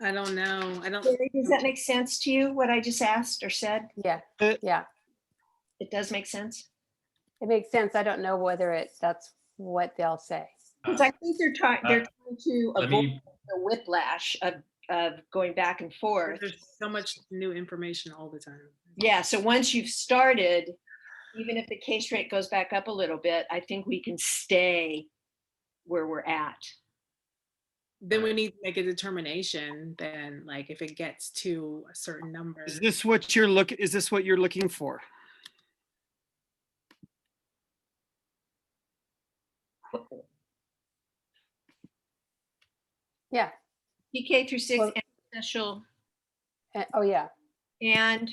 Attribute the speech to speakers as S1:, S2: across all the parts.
S1: I don't know. I don't,
S2: Jerry, Does that make sense to you, what I just asked or said?
S3: Yeah,
S4: Uh,
S3: yeah,
S2: It does make sense?
S3: it makes sense. I don't know whether it, that's what they'll say.
S2: Because I think they're trying, they're trying to
S5: Uh, Let
S2: avoid
S5: me,
S2: the whiplash of, of going back and forth.
S1: there's so much new information all the time.
S2: Yeah, so once you've started, even if the case rate goes back up a little bit, I think we can stay where we're at.
S1: Then we need to make a determination then, like if it gets to a certain number.
S4: Is this what you're look, is this what you're looking for?
S3: Yeah,
S2: PK through six
S3: Well-
S2: and special
S3: eh, oh, yeah.
S2: and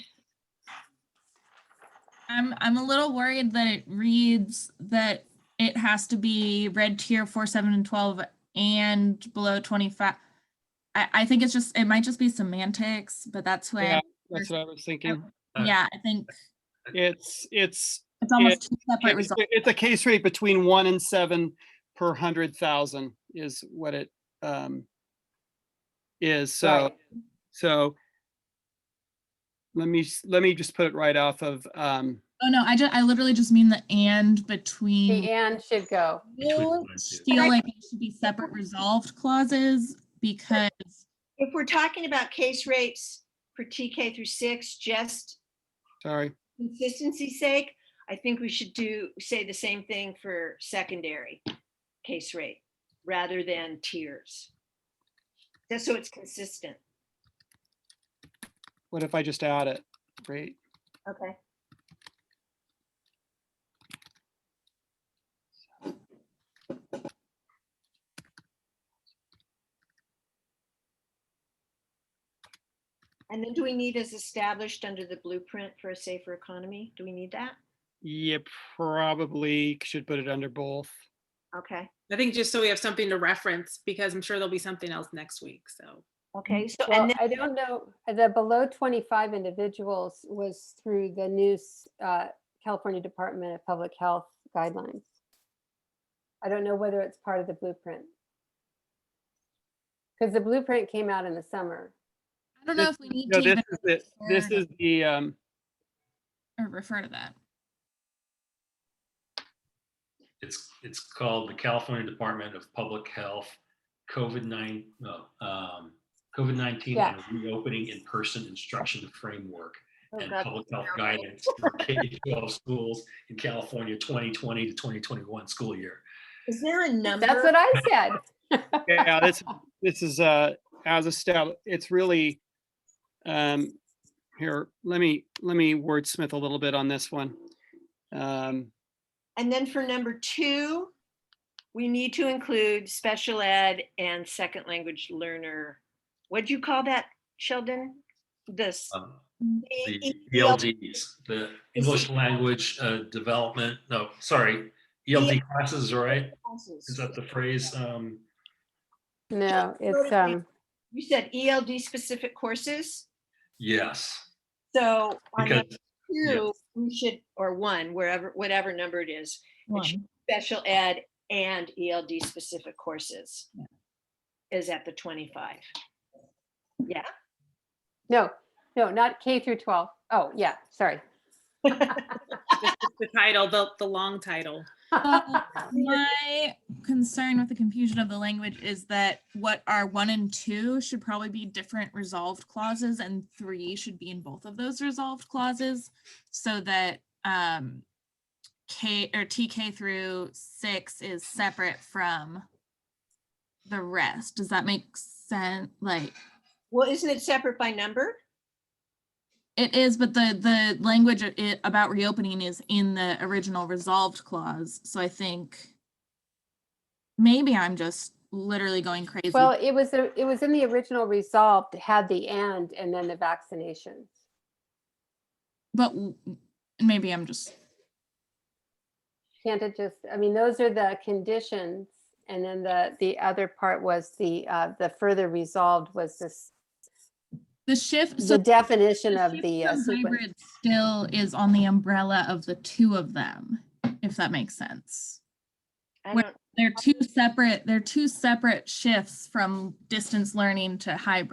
S6: I'm I'm a little worried that it reads that it has to be red tier four, seven, and twelve and below twenty-five. I, I think it's just, it might just be semantics, but that's
S4: Yeah,
S6: where,
S4: That's what I was thinking.
S5: I-
S6: yeah, I think
S4: It's, it's,
S6: it's almost two separate
S4: it's
S6: results.
S4: it's a case rate between one and seven per hundred thousand is what it, um, is, so,
S3: right.
S4: so. Let me, s- let me just put it right off of, um,
S6: Oh, no, I ju, I literally just mean the and
S3: The
S6: between.
S3: and should go.
S5: Between the
S6: You
S5: lines, yeah.
S6: Feel like it should be separate resolved clauses because,
S2: if we're talking about case rates for TK through six, just
S4: sorry,
S2: consistency's sake, I think we should do, say the same thing for secondary case rate rather than tiers. Just so it's consistent.
S4: what if I just add it? Great.
S2: Okay. And then do we need as established under the blueprint for a safer economy? Do we need that?
S4: Yeah, probably should put it under both.
S2: Okay,
S1: I think just so we have something to reference, because I'm sure there'll be something else next week, so.
S2: okay, so uh,
S3: Well,
S2: and then,
S3: I don't know, the below 25 individuals was through the new s- uh, California Department of Public Health guidelines. I don't know whether it's part of the blueprint. Because the blueprint came out in the summer.
S6: I don't know
S4: This-
S6: if we need to
S4: No, this
S6: even
S4: is it. This
S6: refer-
S4: is the, um,
S6: or refer to that.
S5: It's, it's called the California Department of Public Health, COVID nine, no, um, COVID nineteen
S3: Yeah.
S5: and reopening in-person instruction framework
S2: oh
S5: and
S2: God,
S5: public health
S2: now-
S5: guidance for K twelve schools in California twenty twenty to twenty twenty-one school year.
S2: is there a number?
S3: That's what I said.
S4: yeah, this, this is, uh, as a step, it's really, um, here, let me, let me wordsmith a little bit on this one. Um,
S2: And then for number two, we need to include special ed and second language learner. What'd you call that, Sheldon? This.
S5: Um,
S2: E,
S5: The E
S2: EL
S5: ELDs, the English language uh, development, no, sorry,
S2: E
S5: ELD classes, right?
S2: classes.
S5: Is that the phrase? Um,
S3: No, it's,
S2: to me.
S3: um,
S2: You said ELD specific courses,
S5: yes,
S2: so on
S5: because,
S2: number two, we should, or one, wherever, whatever number it is,
S6: One.
S2: should- special ed and ELD specific courses is at the twenty-five.
S3: no, no, not K through 12. Oh, yeah, sorry.
S1: Just The title, the, the long title.
S6: My concern with the confusion of the language is that what are one and two should probably be different resolved clauses and three should be in both of those resolved clauses so that um K or TK through six is separate from the rest. Does that make sense? Like
S2: Well, isn't it separate by number?
S6: it is, but the the language a- i- about reopening is in the original resolved clause. So I think maybe I'm just literally going crazy.
S3: Well, it was, a- it was in the original resolve, that had the and, and then the vaccinations.
S6: but w- maybe I'm just
S3: Can't it just, I mean, those are the conditions. And then the, the other part was the, uh, the further resolved was this,
S6: the shift. So
S3: the definition
S6: the
S3: of
S6: shift
S3: the.
S6: to
S3: uh, sequence.
S6: hybrid still is on the umbrella of the two of them, if that makes sense.
S2: I
S6: Well,
S2: don't
S6: They're two separate. They're two separate shifts from distance learning to hybrid.